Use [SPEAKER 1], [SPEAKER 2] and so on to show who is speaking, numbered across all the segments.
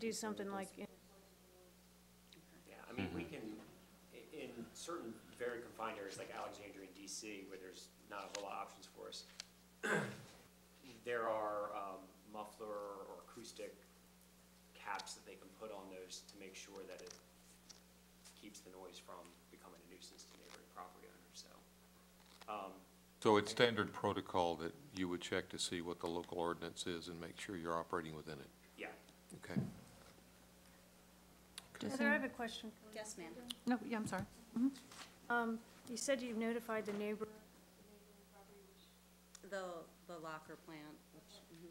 [SPEAKER 1] do something like,
[SPEAKER 2] Yeah, I mean, we
[SPEAKER 3] Mm-hmm.
[SPEAKER 2] can, i- in certain very confined areas like Alexandria and DC, where there's not a whole lot of options for us, there are um, muffler or acoustic caps that they can put on those to make sure that it keeps the noise from becoming a nuisance to neighboring property owners, so. um,
[SPEAKER 3] So it's standard protocol that you would check to see what the local ordinance is and make sure you're operating within it?
[SPEAKER 2] Yeah,
[SPEAKER 3] Okay.
[SPEAKER 4] Does
[SPEAKER 1] Heather, I
[SPEAKER 4] any-
[SPEAKER 1] have a question. for you.
[SPEAKER 5] Yes, ma'am.
[SPEAKER 4] No, yeah, I'm sorry.
[SPEAKER 1] Um, you said you've notified the neighbor,
[SPEAKER 5] The, the locker plant, which, mhm.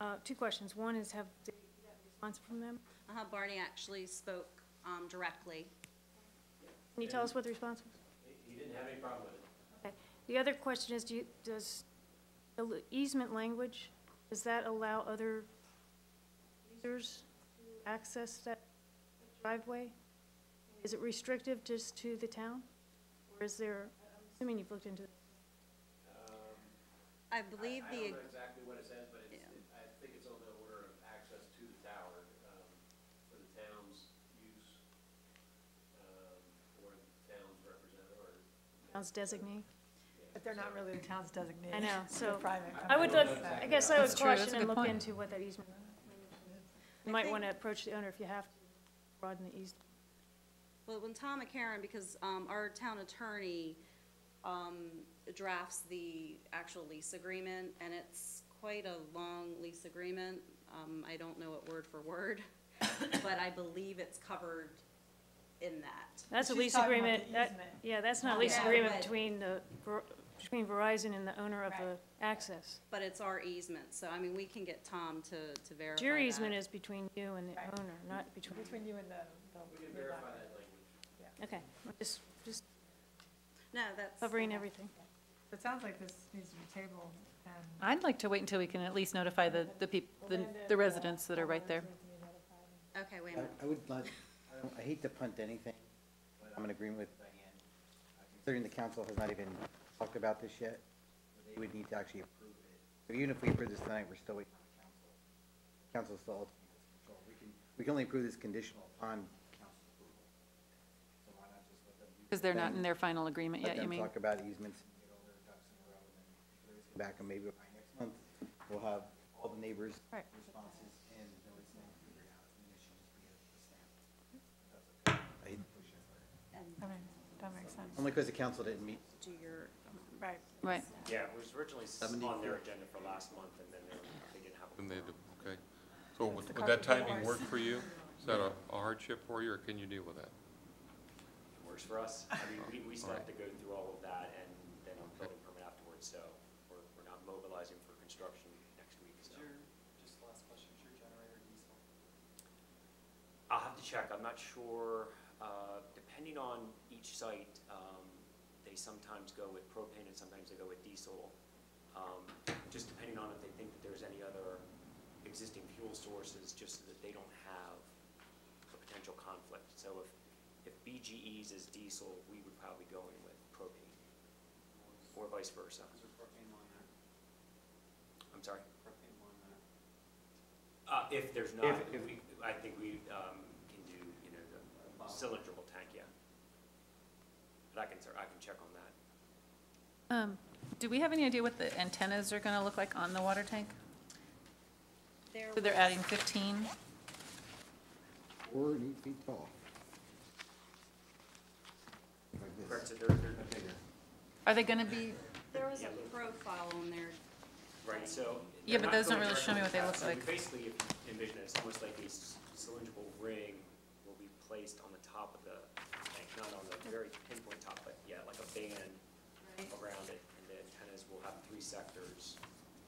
[SPEAKER 1] uh, two questions. One is have, did you get a response from them?
[SPEAKER 5] Uh-huh, Barney actually spoke um, directly.
[SPEAKER 1] Can you tell us what the response was?
[SPEAKER 2] he didn't have any problem with it.
[SPEAKER 1] Okay. The other question is, do you, does the l- easement language, does that allow other users to access that driveway? Is it restrictive just to the town? Or is there, I'm assuming you've looked into,
[SPEAKER 5] I believe
[SPEAKER 6] I- I
[SPEAKER 5] the,
[SPEAKER 6] don't know exactly what it says, but it's,
[SPEAKER 5] Yeah.
[SPEAKER 6] it- I think it's on the order of access to the tower, um, for the town's use, um, or the town's representative, or.
[SPEAKER 1] town's designee?
[SPEAKER 7] But they're not really the town's designated.
[SPEAKER 1] I know, so
[SPEAKER 7] They're private.
[SPEAKER 1] I would look, I guess I would
[SPEAKER 4] That's true, that's
[SPEAKER 1] caution
[SPEAKER 4] a
[SPEAKER 1] and
[SPEAKER 4] good
[SPEAKER 1] look
[SPEAKER 4] point.
[SPEAKER 1] into what that easement. You
[SPEAKER 5] I
[SPEAKER 1] might
[SPEAKER 5] think-
[SPEAKER 1] want to approach the owner if you have to broaden the easement.
[SPEAKER 5] well, when Tom McCarron, because um, our town attorney um, drafts the actual lease agreement, and it's quite a long lease agreement. Um, I don't know it word for word, but I believe it's covered in that.
[SPEAKER 1] That's a
[SPEAKER 7] She's
[SPEAKER 1] lease
[SPEAKER 7] talking about
[SPEAKER 1] agreement,
[SPEAKER 7] the
[SPEAKER 1] that-
[SPEAKER 7] easement.
[SPEAKER 1] yeah, that's not a
[SPEAKER 5] Not
[SPEAKER 1] lease
[SPEAKER 5] the
[SPEAKER 1] agreement
[SPEAKER 5] roadway.
[SPEAKER 1] between the, Ver- between Verizon and the owner of the access.
[SPEAKER 5] But it's our easement, so I mean, we can get Tom to, to verify
[SPEAKER 1] Your
[SPEAKER 5] that.
[SPEAKER 1] easement is between you and the
[SPEAKER 7] Right.
[SPEAKER 1] owner, not between,
[SPEAKER 7] Between you and the, the.
[SPEAKER 6] We can verify that language.
[SPEAKER 1] okay, just, just
[SPEAKER 5] No, that's.
[SPEAKER 1] covering everything.
[SPEAKER 7] It sounds like this needs to be tabled and.
[SPEAKER 4] I'd like to wait until we can at least notify the, the people, the the residents that are right there.
[SPEAKER 5] Okay, wait a minute.
[SPEAKER 8] I- I would like, I don't- I hate to punt anything, but I'm in agreement with Diane. Uh, Considering the council has not even talked about this yet, they would need to actually approve it. So even if we approve this tonight, we're still waiting on the council. Council still ultimately has control. We can, we can only approve this conditional on council approval. So why not just let them do
[SPEAKER 4] Because they're not in
[SPEAKER 8] thing,
[SPEAKER 4] their final agreement
[SPEAKER 8] Let
[SPEAKER 4] yet, you
[SPEAKER 8] them
[SPEAKER 4] mean?
[SPEAKER 8] talk about easements and get all their ducks in a row and then we can come back and maybe by next month, we'll have all the neighbors'
[SPEAKER 1] Right.
[SPEAKER 8] responses and know it's not figured out. And it should just be a a stamp.
[SPEAKER 7] I mean, that makes sense,
[SPEAKER 8] Only because the council didn't meet.
[SPEAKER 5] Do your,
[SPEAKER 7] right.
[SPEAKER 4] Right.
[SPEAKER 2] Yeah, it was originally s- on their agenda for last month, and then they were- they didn't have a
[SPEAKER 3] And they,
[SPEAKER 2] quorum.
[SPEAKER 3] okay. So would would that timing work for you? Is that a a hardship for you, or can you deal with that?
[SPEAKER 2] works for us. I mean, we, we still have
[SPEAKER 3] Alright.
[SPEAKER 2] to go through all of that and then a building permit afterwards, so we're, we're not mobilizing for construction next week, so.
[SPEAKER 6] just last question, is your generator diesel?
[SPEAKER 2] I'll have to check, I'm not sure, uh, depending on each site, um, they sometimes go with propane and sometimes they go with diesel. Um, just depending on if they think that there's any other existing fuel sources, just so that they don't have a potential conflict. So if, if BGE's is diesel, we would probably go in with propane, or vice versa.
[SPEAKER 6] Is there propane on there?
[SPEAKER 2] I'm sorry?
[SPEAKER 6] Propane on there?
[SPEAKER 2] Uh, if there's not, we, I think we, um, can do, you know, the cylindrical tank, yeah. But I can, cer- I can check on that.
[SPEAKER 4] Um, Do we have any idea what the antennas are going to look like on the water tank?
[SPEAKER 5] there
[SPEAKER 4] So they're adding 15?
[SPEAKER 8] Four and eight feet tall. Like this.
[SPEAKER 2] Correct, so they're, they're
[SPEAKER 4] Are they going to be,
[SPEAKER 5] There was a profile on there.
[SPEAKER 2] Right, so.
[SPEAKER 4] Yeah,
[SPEAKER 2] they're
[SPEAKER 4] but
[SPEAKER 2] not
[SPEAKER 4] those don't
[SPEAKER 2] going
[SPEAKER 4] really show me what they
[SPEAKER 2] directly
[SPEAKER 4] look
[SPEAKER 2] outside.
[SPEAKER 4] like.
[SPEAKER 2] Basically, if you envision it, it's almost like a s- cylindrical ring will be placed on the top of the tank, not on the very pinpoint top, but yeah, like a band
[SPEAKER 5] Right.
[SPEAKER 2] around it, and the antennas will have three sectors.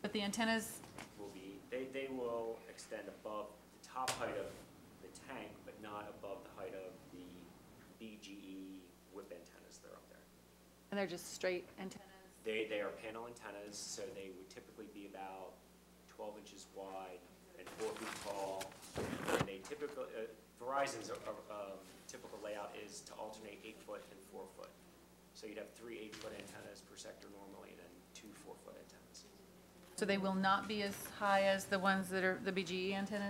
[SPEAKER 4] but the antennas,
[SPEAKER 2] will be, they, they will extend above the top height of the tank, but not above the height of the BGE whip antennas that are up there.
[SPEAKER 4] and they're just straight antennas?
[SPEAKER 2] They, they are panel antennas, so they would typically be about twelve inches wide and four feet tall. And they typically, uh, Verizon's, uh, um, typical layout is to alternate eight foot and four foot. So you'd have three eight foot antennas per sector normally, and then two four foot antennas.
[SPEAKER 4] So they will not be as high as the ones that are, the BGE antennas?